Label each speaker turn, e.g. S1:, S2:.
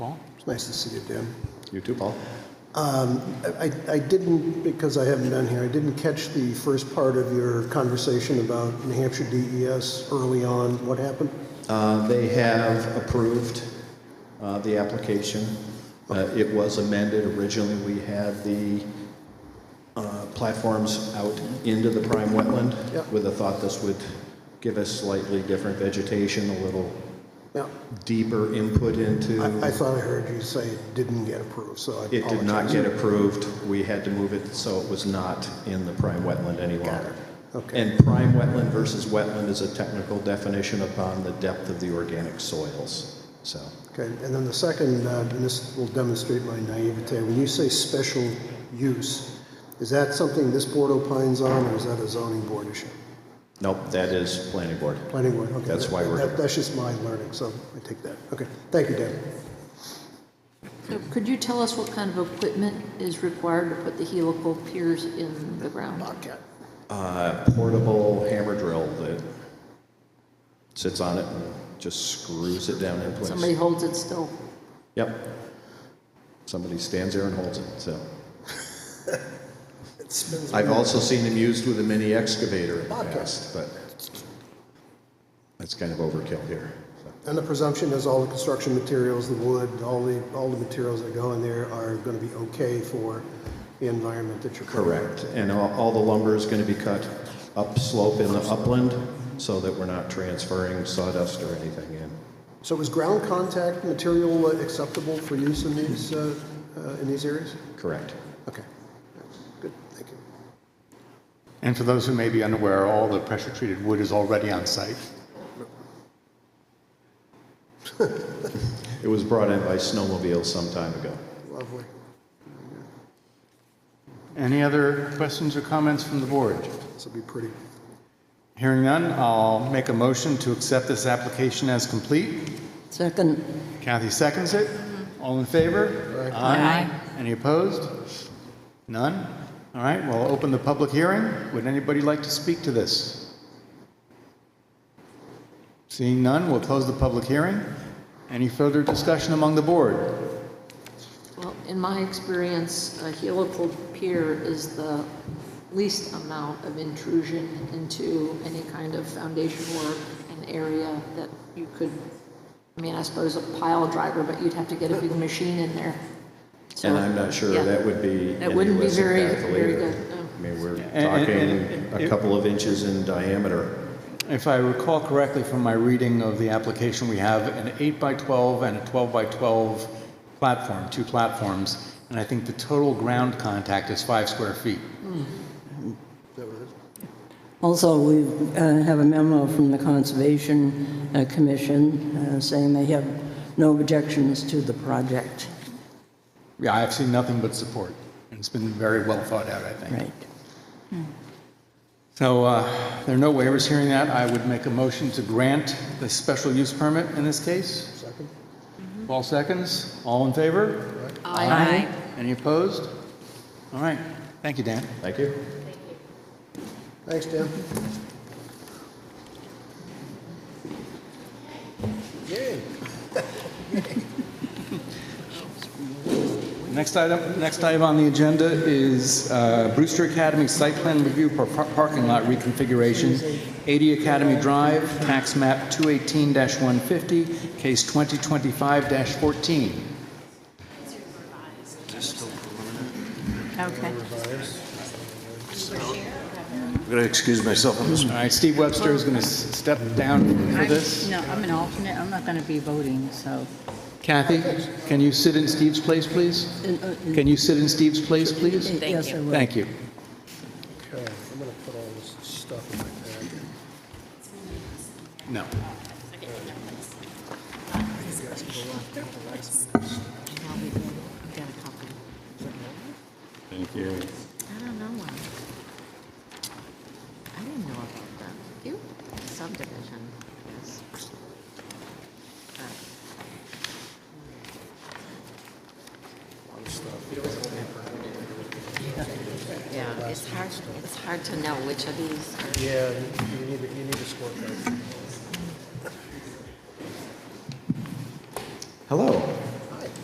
S1: Paul.
S2: It's nice to see you, Dan.
S3: You too, Paul.
S2: I, I didn't, because I haven't been here, I didn't catch the first part of your conversation about New Hampshire DES early on. What happened?
S3: Uh, They have approved uh, the application. Uh, It was amended. Originally, we had the uh, platforms out into the prime wetland
S2: Yep.
S3: with the thought this would give us slightly different vegetation, a little
S2: Yeah,
S3: deeper input into.
S2: I, I thought I heard you say it didn't get approved, so I
S3: It
S2: apologize.
S3: did not get approved. We had to move it so it was not in the prime wetland any longer.
S2: Okay.
S3: And prime wetland versus wetland is a technical definition upon the depth of the organic soils, so.
S2: Okay, and then the second, uh, and this will demonstrate my naivete, when you say special use, is that something this board opines on, or is that a zoning board issue?
S3: Nope, that is planning board.
S2: Planning board, okay.
S3: That's why we're
S2: that-
S3: here.
S2: That's just my learning, so I take that. Okay, thank you, Dan.
S1: So could you tell us what kind of equipment is required to put the helical piers in the ground?
S2: Bobcat.
S3: Uh, Portable hammer drill that sits on it and just screws it down in
S1: Somebody
S3: place.
S1: holds it still.
S3: Yep. Somebody stands there and holds it, so.
S2: It spins
S3: I've also seen them used with a mini excavator in the
S2: Bobcat.
S3: past, but that's kind of overkill here. so.
S2: And the presumption is all the construction materials, the wood, all the, all the materials that go in there are going to be okay for the environment that you're. creating.
S3: Correct, and all all the lumber is going to be cut upslope in the upland so that we're not transferring sawdust or anything in.
S2: So is ground contact material uh, acceptable for use in these, uh, uh, in these areas?
S3: Correct.
S2: Okay, good, thank you.
S4: And for those who may be unaware, all the pressure-treated wood is already on site.
S3: It was brought in by snowmobiles some time ago.
S2: Lovely.
S4: Any other questions or comments from the board?
S2: This will be pretty.
S4: Hearing none, I'll make a motion to accept this application as complete.
S1: Second.
S4: Kathy seconds it. All in favor?
S1: Aye.
S4: Any opposed? None? All right, well, I'll open the public hearing. Would anybody like to speak to this? Seeing none, we'll close the public hearing. Any further discussion among the board?
S1: Well, in my experience, a helical pier is the least amount of intrusion into any kind of foundation or an area that you could, I mean, I suppose a pile driver, but you'd have to get a big machine in there. So-
S3: And I'm not sure
S1: Yeah.
S3: that would be
S1: That
S3: any
S1: wouldn't be
S3: less
S1: very,
S3: impactful
S1: very
S3: either.
S1: good, no.
S3: I mean, we're
S4: and-
S3: talking
S4: and-
S3: a couple of inches in diameter.
S4: If I recall correctly from my reading of the application, we have an eight by 12 and a 12 by 12 platform, two platforms, and I think the total ground contact is five square feet.
S5: Also, we uh, have a memo from the Conservation uh, Commission uh, saying they have no objections to the project.
S4: Yeah, I've seen nothing but support, and it's been very well thought out, I think.
S5: Right.
S4: So uh, there are no waivers hearing that. I would make a motion to grant the special use permit in this case. Mm-hmm.
S2: Second?
S4: All seconds, all in favor?
S1: Aye.
S4: Any opposed? All right, thank you, Dan.
S3: Thank you.
S2: Thanks, Dan. Yay.
S4: Next item, next item on the agenda is uh, Brewster Academy Site Plan Review for par- Parking Lot Reconfiguration, 80 Academy Drive, Tax Map 218-150, Case 2025-14.
S6: Okay.
S7: I'm going to excuse myself on this.
S4: All right, Steve Webster is going to step down for
S6: I'm-
S4: this.
S6: No, I'm an alternate, I'm not going to be voting, so.
S4: Kathy, can you sit in Steve's place, please? Can you sit in Steve's place, please?
S5: Yes, I will.
S4: uh, Thank you.
S2: Okay, I'm gonna put all this stuff in my bag.
S4: No.
S7: Thank you.
S1: I don't know. why. I didn't know about that. You subdivision is. Yeah, it's hard, it's hard to know which of these are.
S2: Yeah, you- you need, a- you need a scorecard.
S3: Hello.